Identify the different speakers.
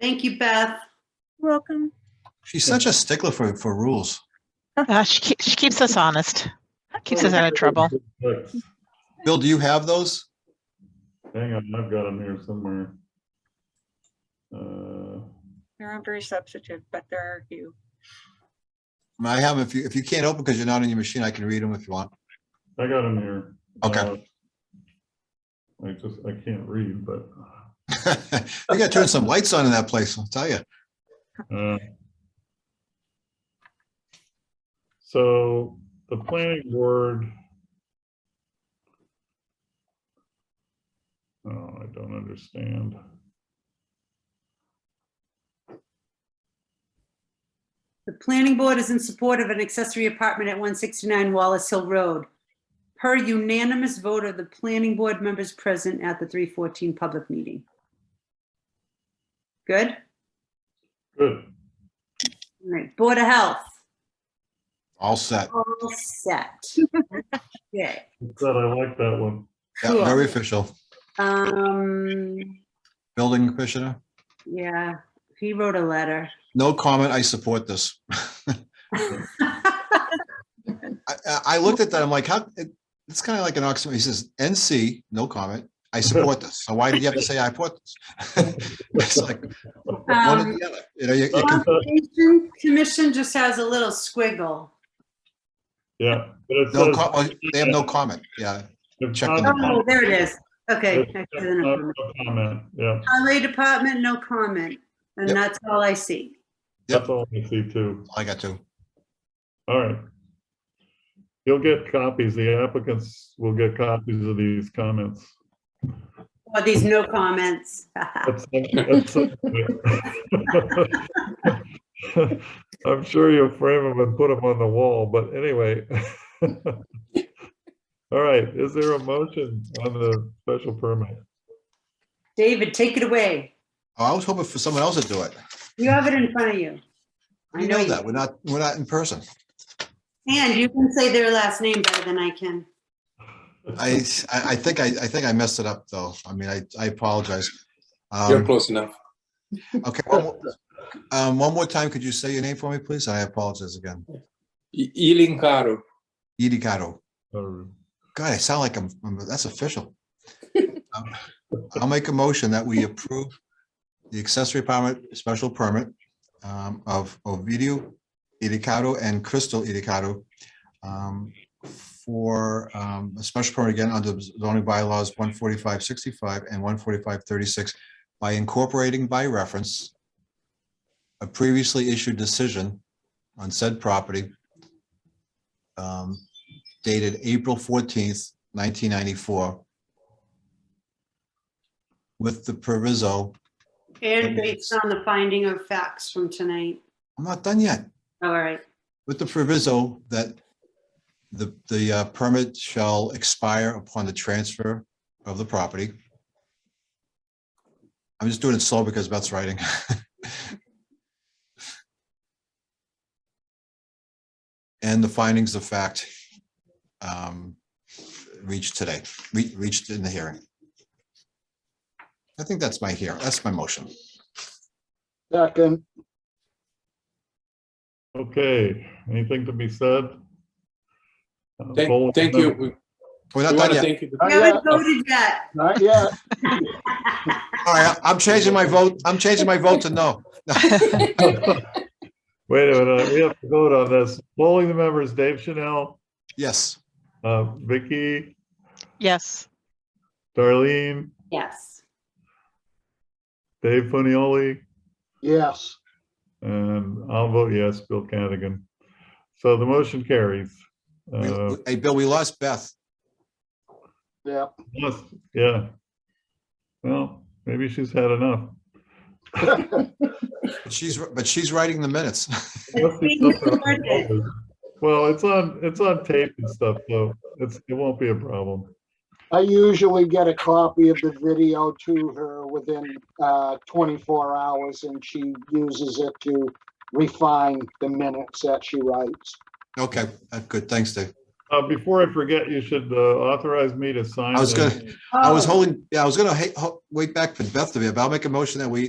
Speaker 1: Thank you, Beth.
Speaker 2: Welcome.
Speaker 3: She's such a stickler for, for rules.
Speaker 4: Uh, she, keep, she keeps us honest, keeps us out of trouble.
Speaker 5: Look,
Speaker 3: Bill, do you have those?
Speaker 5: Hang on, I've got them here somewhere. Uh,
Speaker 2: They're on very substantive, but there are a few.
Speaker 3: I mean, I have, 'em if you, if you can't open because you're not on your machine, I can read them if you want.
Speaker 5: I got them here.
Speaker 3: Okay.
Speaker 5: Uh, I just, I can't read, but,
Speaker 3: We gotta turn some lights on in that place, I'll tell you.
Speaker 5: uh, so the planning board. Oh, I don't understand.
Speaker 1: The planning board is in support of an accessory apartment at 169 Wallace Hill Road. Per unanimous vote of the planning board members present at the 314 public meeting. Good? All
Speaker 5: Good.
Speaker 1: right, Board of Health,
Speaker 3: All set.
Speaker 1: all set. Okay.
Speaker 5: Said I like that one.
Speaker 3: Yeah,
Speaker 1: Cool.
Speaker 3: very official.
Speaker 1: Um,
Speaker 3: Building commissioner,
Speaker 1: yeah, he wrote a letter.
Speaker 3: no comment, I support this. I, I- I looked at that, I'm like, how, it- it's kind of like an oxymoron. He says, NC, no comment, I support this. So why did you have to say I support this? It's like, one or
Speaker 1: Um,
Speaker 3: the other. You know, you- you can-
Speaker 1: Conservation Commission just has a little squiggle.
Speaker 5: Yeah. but it
Speaker 3: no
Speaker 5: says-
Speaker 3: co- oh, They have no comment, yeah.
Speaker 5: If
Speaker 3: check
Speaker 5: not-
Speaker 3: in the box.
Speaker 1: Oh, there it is. Okay.
Speaker 5: if
Speaker 1: I
Speaker 5: not,
Speaker 1: see the number.
Speaker 5: no Comment, yeah,
Speaker 1: Highway Department, no comment. And
Speaker 3: Yep.
Speaker 1: that's all I see.
Speaker 3: Yep.
Speaker 5: that's all I see too.
Speaker 3: I got to.
Speaker 5: All right. You'll get copies, the applicants will get copies of these comments.
Speaker 1: Well, these no comments.
Speaker 5: That's- that's- I'm sure you'll frame them and put them on the wall, but anyway. All right, is there a motion on the special permit?
Speaker 1: David, take it away.
Speaker 3: Oh, I was hoping for someone else to do it.
Speaker 1: You have it in front of you. I
Speaker 3: You
Speaker 1: know
Speaker 3: know
Speaker 1: you.
Speaker 3: that, we're not, we're not in person.
Speaker 1: And you can say their last name better than I can.
Speaker 3: I, I I think I, I think I messed it up, though. I mean, I, I apologize.
Speaker 6: You're
Speaker 3: Um,
Speaker 6: close enough.
Speaker 3: Okay, one more, um, one more time, could you say your name for me, please? I apologize again.
Speaker 6: E- Ealing Caro.
Speaker 3: Edie Gatto.
Speaker 5: Or-
Speaker 3: God, I sound like I'm, I'm- that's official. Um, I'll make a motion that we approve the accessory permit, special permit um, of Ovidio Idicado and Crystal Idicado um, for um, a special permit again under zoning bylaws one forty-five sixty-five and one forty-five thirty-six by incorporating by reference a previously issued decision on said property um, dated April fourteenth, nineteen ninety-four. With the proviso,
Speaker 1: And based on the finding of facts from tonight.
Speaker 3: I'm not done yet,
Speaker 1: All right.
Speaker 3: with the proviso that the, the uh, permit shall expire upon the transfer of the property. I'm just doing it slow because Beth's writing. And the findings of fact um, reached today, re- reached in the hearing. I think that's my here, that's my motion.
Speaker 7: Second,
Speaker 5: Okay, anything to be said? Uh, poll-
Speaker 6: Thank, thank you. We,
Speaker 3: We're
Speaker 6: we
Speaker 3: not
Speaker 6: want
Speaker 3: done
Speaker 6: to
Speaker 3: yet.
Speaker 6: thank you.
Speaker 1: We
Speaker 7: not yet,
Speaker 1: haven't voted yet.
Speaker 7: not yet.
Speaker 3: All right, I'm changing my vote, I'm changing my vote to no.
Speaker 5: Wait a minute, uh, we have to vote on this. Polling the members, Dave Chanel,
Speaker 3: Yes.
Speaker 5: uh, Vicky,
Speaker 4: Yes.
Speaker 5: Darlene,
Speaker 1: Yes.
Speaker 5: Dave Funioli,
Speaker 7: Yes.
Speaker 5: and I'll vote yes, Bill Cadigan. So the motion carries.
Speaker 3: We-
Speaker 5: Uh,
Speaker 3: Hey, Bill, we lost Beth.
Speaker 7: Yeah.
Speaker 5: yes, yeah. Well, maybe she's had enough.
Speaker 3: but She's, but she's writing the minutes.
Speaker 5: Unless
Speaker 1: being
Speaker 5: there's something
Speaker 1: recorded.
Speaker 5: else. Well, it's on, it's on tape and stuff, so it's, it won't be a problem.
Speaker 7: I usually get a copy of the video to her within uh, 24 hours and she uses it to refine the minutes that she writes.
Speaker 3: Okay, uh, good, thanks, Dave.
Speaker 5: Uh, before I forget, you should uh, authorize me to sign.
Speaker 3: I was
Speaker 5: the-
Speaker 1: Oh.
Speaker 3: gonna, I was holding, yeah, I was gonna ha- ho- wait back for Beth to be, but I'll make a motion that we